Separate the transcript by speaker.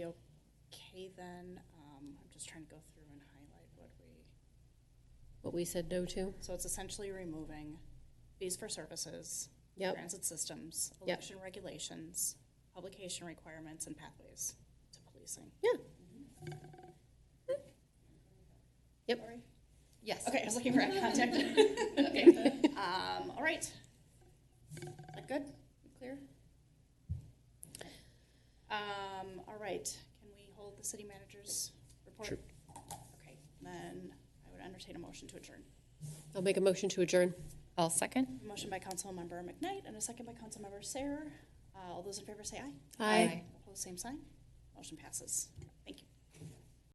Speaker 1: Haven, um, I'm just trying to go through and highlight what we.
Speaker 2: What we said no to?
Speaker 1: So it's essentially removing fees for services,
Speaker 2: Yep.
Speaker 1: transit systems,
Speaker 2: Yep.
Speaker 1: election regulations, publication requirements, and pathways to policing. Mm-hmm.
Speaker 2: Yeah. Yep. Yes.
Speaker 1: Okay, I was looking for eye contact. okay. Um, all right. That good? Clear? Um, all right. Can we hold the city manager's report?
Speaker 3: Sure.
Speaker 1: Okay. Then I would entertain a motion to adjourn.
Speaker 2: I'll make a motion to adjourn.
Speaker 4: I'll second.
Speaker 1: Motion by Councilmember McKnight and a second by Councilmember Sayer. Uh, all those in favor say aye.
Speaker 4: Aye.
Speaker 1: Opposed, same sign. Motion passes. Thank you.